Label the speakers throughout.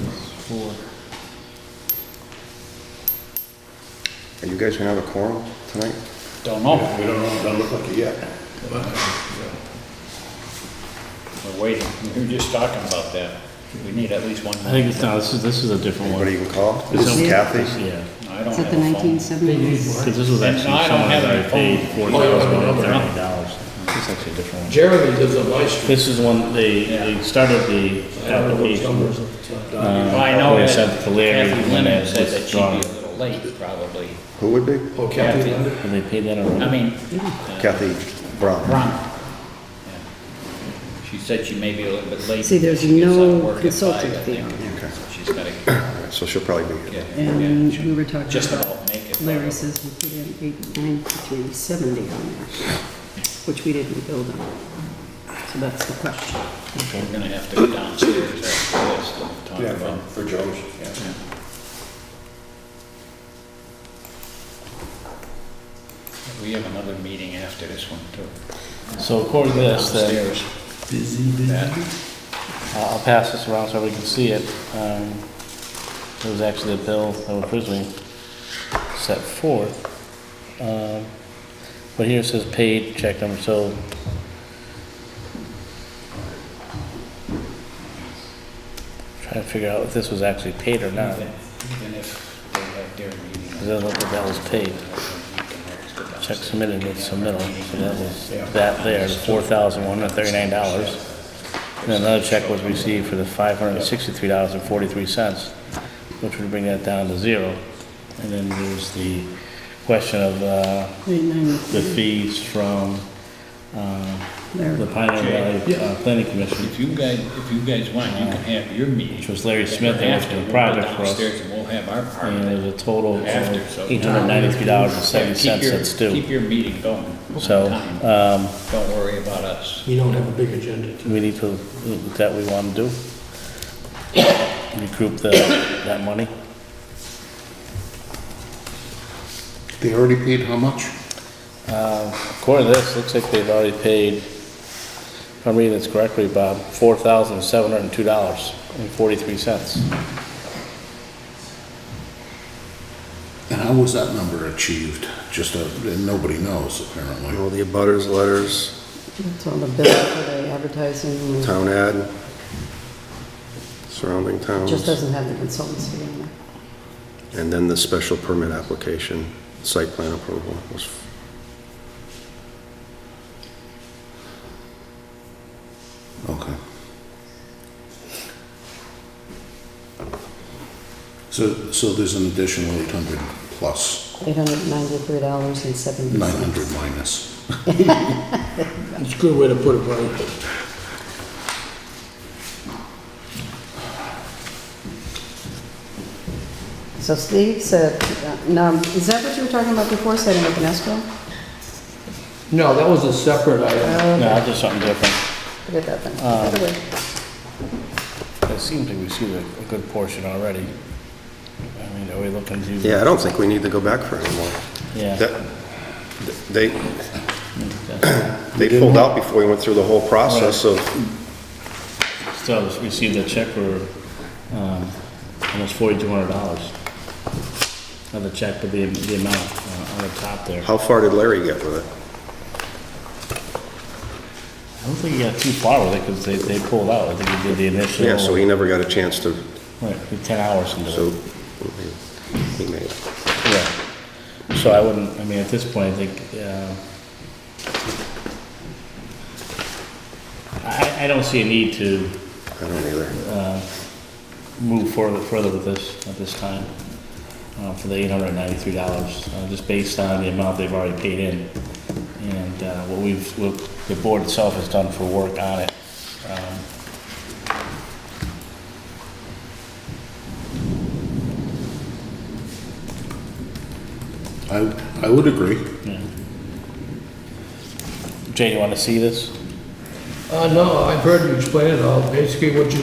Speaker 1: Four.
Speaker 2: Are you guys gonna have a quorum tonight?
Speaker 1: Don't know,
Speaker 3: We don't know, it doesn't look like it yet.
Speaker 1: we're waiting, we were just talking about that, we need at least one.
Speaker 4: I think it's not, this is, this is a different one.
Speaker 2: Anybody you can call?
Speaker 4: This is-
Speaker 2: Kathy?
Speaker 4: Yeah,
Speaker 1: I don't
Speaker 5: Is it
Speaker 1: have
Speaker 5: the
Speaker 1: a phone.
Speaker 5: 1970s?
Speaker 4: 'Cause this was
Speaker 1: And
Speaker 4: actually
Speaker 1: I don't
Speaker 4: someone
Speaker 1: have
Speaker 4: that I
Speaker 1: any
Speaker 4: paid
Speaker 1: phone.
Speaker 4: four thousand thirty dollars. This is actually a different one.
Speaker 3: Jeremy lives on my street.
Speaker 4: This is one, they, they started the application.
Speaker 1: Well, Uh, I know
Speaker 4: They
Speaker 1: that
Speaker 4: sent it to Larry,
Speaker 1: Kathy
Speaker 4: and then
Speaker 1: Lennon
Speaker 4: it
Speaker 1: said that she'd be
Speaker 4: withdrawn.
Speaker 1: a little late, probably.
Speaker 2: Who would be?
Speaker 3: Oh, Kathy,
Speaker 4: And they paid that
Speaker 1: I
Speaker 4: already.
Speaker 1: mean,
Speaker 2: Kathy Brown.
Speaker 1: Ron. Yeah. She said she may be a little bit late.
Speaker 5: See, there's
Speaker 1: She was
Speaker 5: no
Speaker 1: at work at
Speaker 5: consultant
Speaker 1: five, I think. So She's gotta,
Speaker 2: So she'll probably be here.
Speaker 1: yeah, yeah,
Speaker 5: And
Speaker 1: she'll
Speaker 5: we were talking
Speaker 1: just
Speaker 5: about,
Speaker 1: about make it.
Speaker 5: Larry says we put in 89370 on there, which we didn't build on. So that's the question.
Speaker 1: We're gonna have to go downstairs after this and talk
Speaker 3: yeah,
Speaker 1: about.
Speaker 3: for Joe's, yeah.
Speaker 1: We have another meeting after this one too.
Speaker 4: So according to this, then, uh,
Speaker 1: Downstairs. Busy, busy.
Speaker 4: I'll I'll pass this around so everybody can see it. Um, It was actually a bill that was originally set forth. Um, But here it says paid check number, so trying to figure out if this was actually paid or not.
Speaker 1: Even even if they have their meeting.
Speaker 4: It doesn't look like that was paid. Check submitted with submittal, so that was that there, four thousand one hundred thirty-nine dollars. And another check was received for the five hundred sixty-three dollars and forty-three cents, which would bring that down to zero. And then there's the question of, uh, the fees from, uh, the Pioneer Valley uh, Planning Commission,
Speaker 1: If you guys, if you guys want, you can have your meeting.
Speaker 4: which was Larry Smith, that was the project for us.
Speaker 1: Downstairs and we'll have our part
Speaker 4: And
Speaker 1: of
Speaker 4: there's
Speaker 1: it.
Speaker 4: a total of
Speaker 1: After, so-
Speaker 4: eight hundred ninety-three dollars and seventy
Speaker 1: Yeah, keep
Speaker 4: cents
Speaker 1: your-
Speaker 4: that's due.
Speaker 1: Keep your meeting going.
Speaker 4: So,
Speaker 1: Time.
Speaker 4: um,
Speaker 1: Don't worry about us.
Speaker 3: You don't have a big agenda.
Speaker 4: we need to, that we wanna do? Recruit the, that money?
Speaker 6: They already paid how much?
Speaker 4: Uh, according to this, looks like they've already paid, if I'm reading this correctly, Bob, four thousand seven hundred and two dollars and forty-three cents.
Speaker 6: And how was that number achieved? Just a, nobody knows apparently.
Speaker 2: All the abutters letters,
Speaker 5: It's on the bill for the advertising, it
Speaker 2: town ad, surrounding
Speaker 5: just
Speaker 2: towns,
Speaker 5: doesn't have the consultancy in there.
Speaker 2: and then the special permit application, site plan approval was,
Speaker 6: Okay. So, so there's an additional eight hundred plus, nine
Speaker 5: $893.70.
Speaker 6: hundred minus.
Speaker 3: It's a good way to put it, buddy.
Speaker 5: So Steve said, uh, now, is that what you were talking about before, setting up an escrow?
Speaker 3: No, that was a separate item.
Speaker 4: No, I'll do something different.
Speaker 5: Forget that then. Either way.
Speaker 4: It seems like we see a, a good portion already. I mean, are we looking to?
Speaker 2: yeah, I don't think we need to go back for anymore.
Speaker 4: Yeah.
Speaker 2: That, they, they pulled out before we went through the whole process of
Speaker 4: Still received a check for, um, almost forty-two hundred dollars. Another check, but the, the amount uh, on the top there.
Speaker 2: How far did Larry get with it?
Speaker 4: I don't think he got too far with it, because they, they pulled out, I think he did the initial.
Speaker 2: Yeah, so he never got a chance to,
Speaker 4: Right, the ten hours into
Speaker 2: so
Speaker 4: it,
Speaker 2: he made it.
Speaker 4: yeah. So I wouldn't, I mean, at this point, I think, uh, uh, I, I don't see a need to
Speaker 2: I don't either.
Speaker 4: move further, further with this at this time, uh, for the eight hundred and ninety-three dollars, uh, just based on the amount they've already paid in. And, uh, what we've, what the board itself has done for work on it. Um,
Speaker 6: I, I would agree.
Speaker 4: yeah. Jay, you wanna see this?
Speaker 7: Uh, no, I've heard you explain it all. Basically, what you,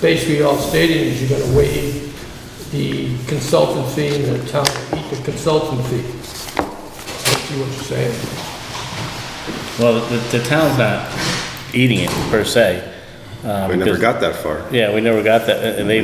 Speaker 7: basically all stating is you're gonna waive the consultant fee and the town, will eat the consultant fee. I see what you're saying.
Speaker 4: Well, the, the town's not eating it per se. uh,
Speaker 2: We never
Speaker 4: because-
Speaker 2: got that far.
Speaker 4: Yeah, we never got that, and they